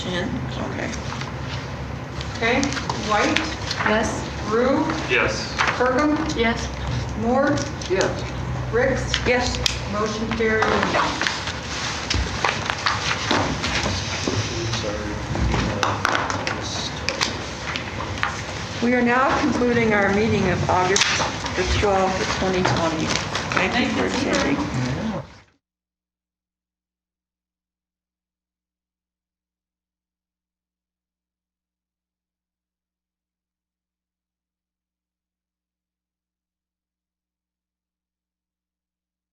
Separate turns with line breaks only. Hand,
Okay.
okay, White,
Yes?
Rue,
Yes.
Kirkham,
Yes.
Moore,
Yes.
Ricks,
Yes.
motion carried.
We are now concluding our meeting of August the 12th, 2020. Thank you for attending.